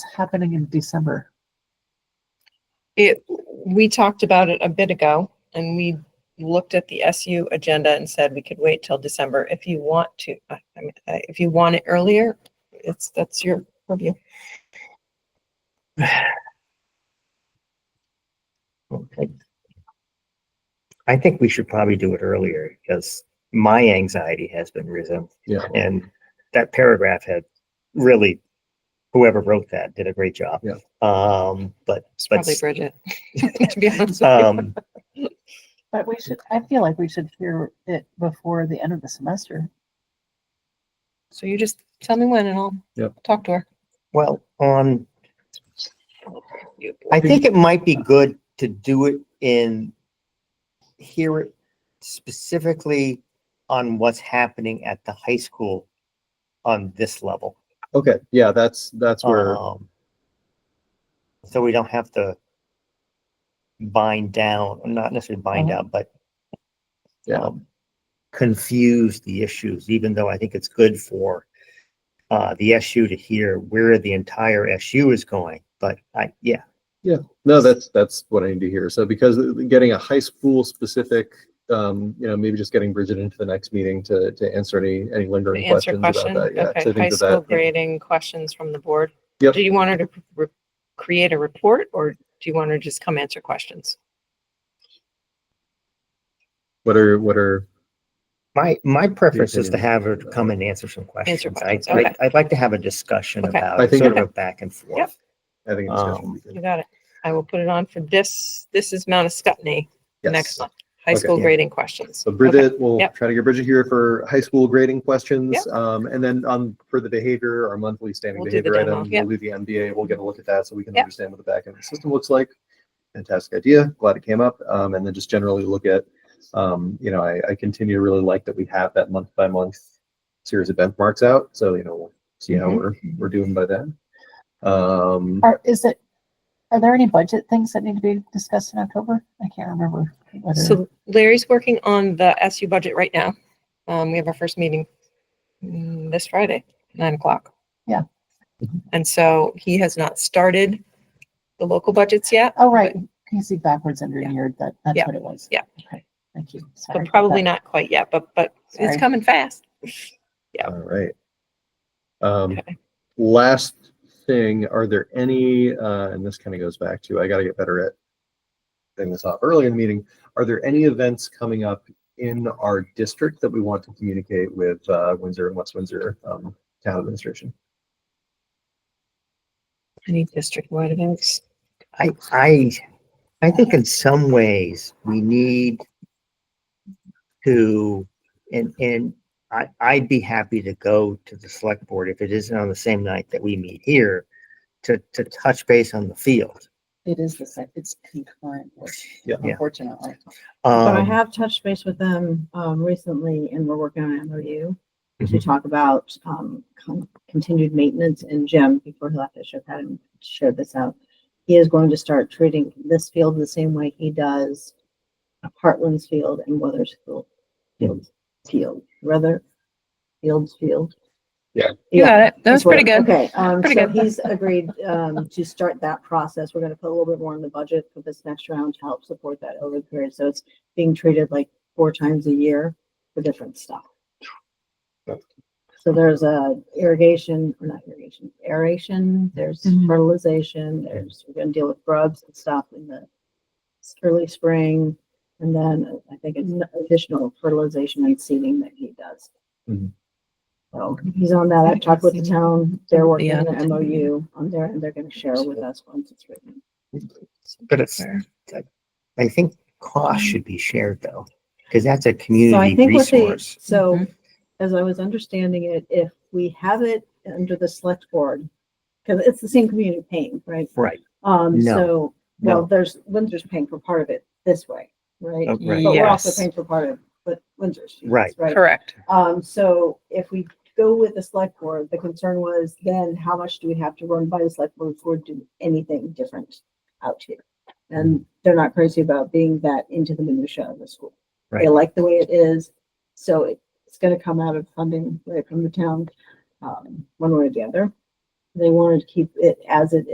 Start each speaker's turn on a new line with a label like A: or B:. A: happening in December?
B: It, we talked about it a bit ago and we looked at the SU agenda and said we could wait till December if you want to. I I mean, uh, if you want it earlier, it's, that's your purview.
C: Okay. I think we should probably do it earlier because my anxiety has been risen
D: Yeah.
C: and that paragraph had really, whoever wrote that did a great job.
D: Yeah.
C: Um, but,
B: It's
C: but,
B: probably Bridget. To be honest with you.
C: um,
A: But we should, I feel like we should hear it before the end of the semester.
B: So you just tell me when and I'll
D: Yep.
B: talk to her.
C: well, on,
B: You-
C: I think it might be good to do it in, hear it specifically on what's happening at the high school on this level.
D: Okay, yeah, that's, that's where,
B: Uh-huh.
C: Um, So we don't have to bind down, not necessarily bind
A: Uh-huh.
C: down, but
D: Yeah.
C: um, confuse the issues, even though I think it's good for uh, the SU to hear where the entire SU is going, but I, yeah,
D: no, that's, that's what I need to hear. So because getting a high school specific, um, you know, maybe just getting Bridget into the next meeting to, to answer any, any lingering
B: Answer
D: questions about
B: question,
D: that. Yeah, so
B: okay,
D: I
B: high
D: think that
B: school
D: that,
B: grading questions from the board.
D: Yep.
B: Do you want her to re- create a report or do you want her to just come answer questions?
D: what are, what are,
C: my, my preference is to
D: opinion.
C: have her to come and answer some questions. I,
B: questions, okay.
C: I- I'd like to have a discussion
B: Okay.
C: about
D: I
C: it,
D: think-
C: sort of a back and forth.
D: I think. it's gonna
C: Um,
D: be good.
B: You got it. I will put it on for this, this is Mount Escutney, next
D: Yes.
B: month, high
D: Okay.
B: school
C: Yeah.
B: grading questions.
D: So
B: Okay.
D: Bridget, we'll
B: Yep.
D: try to get Bridget here for high school grading questions.
B: Yep.
D: Um, and then on, for the behavior, our monthly standing
B: We'll do the
D: behavior
B: demo,
D: item,
B: yep.
D: we'll do the MBA, we'll get a look at that so we can
B: Yep.
D: understand what the back end of the system looks like. Fantastic idea. Glad it came up. Um, and then just generally look at, um, you know, I, I continue to really like that we have that month by month series of benchmarks out. So, you know, we'll see how
B: Mhm.
D: we're, we're doing by then. Um,
A: Are, is it, are there any budget things that need to be discussed in October? I can't remember. whether-
B: So Larry's working on the SU budget right now. Um, we have our first meeting mm, this Friday, nine o'clock.
A: Yeah.
B: And so he has not started the local budgets yet.
A: Oh, right. You see backwards under
B: Yeah.
A: year, that, that's
B: Yeah.
A: what it was.
B: Yeah.
A: Okay, thank you. Sorry
B: But
A: about
B: probably
A: that.
B: not quite yet, but, but
A: Sorry.
B: it's coming fast.
D: All right. Um,
B: Okay.
D: last thing, are there any, uh, and this kind of goes back to, I gotta get better at getting this off early in the meeting. Are there any events coming up in our district that we want to communicate with, uh, Windsor and West Windsor, um, town administration?
B: I need district-wide events.
C: I, I, I think in some ways we need to, and, and I, I'd be happy to go to the select board if it isn't on the same night that we meet here to, to touch base on the field.
A: It is the same, it's concurrent, work,
D: Yeah.
C: Yeah.
A: unfortunately.
E: But I
C: Um,
E: have touched base with them um, recently and we're working on an MOU to talk about um, con- continued maintenance and Jim, before he left, I should have had him share this out. He is going to start treating this field the same way he does Heartland's Field and Weathersfield Field, Field, rather, Fields Field.
D: Yeah.
B: You got it. That was
E: that's
B: pretty
E: what-
B: good.
E: Okay, um,
B: Pretty
E: so
B: good.
E: he's agreed, um, to start that process. We're gonna put a little bit more in the budget for this next round to help support that over the period. So it's being treated like four times a year for different stuff.
D: Yep.
E: So there's a irrigation, or not irrigation, aeration, there's
B: Mm-hmm.
A: Mhm.
E: fertilization, there's, we're gonna deal with grubs and stuff in the s- early spring. And then I think it's additional fertilization and seeding that he does.
D: Mhm.
E: So he's on that. I've talked with the town. They're working on
B: Yeah.
E: an MOU on there and they're gonna share with us once it's written.
C: but it's, I think cost should be shared though, because that's a
E: Mm. So I
C: community
E: think what they,
C: resource.
B: Mm-hmm.
E: so as I was understanding it, if we have it under the select board, because it's the same community paying, right?
C: Right,
E: Um,
C: No,
E: so, well,
C: no.
E: there's, Windsor's paying for part of it this way, right?
C: Oh, right.
E: But we're also
B: Yes.
E: paying for part of, but Windsor's. fees,
C: Right.
E: Right.
B: Correct.
E: Um, so if we go with the select board, the concern was then how much do we have to run by the select board before we do anything different out here? And they're not crazy about being that into the minutia of the school. They
C: Right.
E: like the way it is, so it- it's gonna come out of funding right from the town, um, one way or the other. they wanted to keep it as it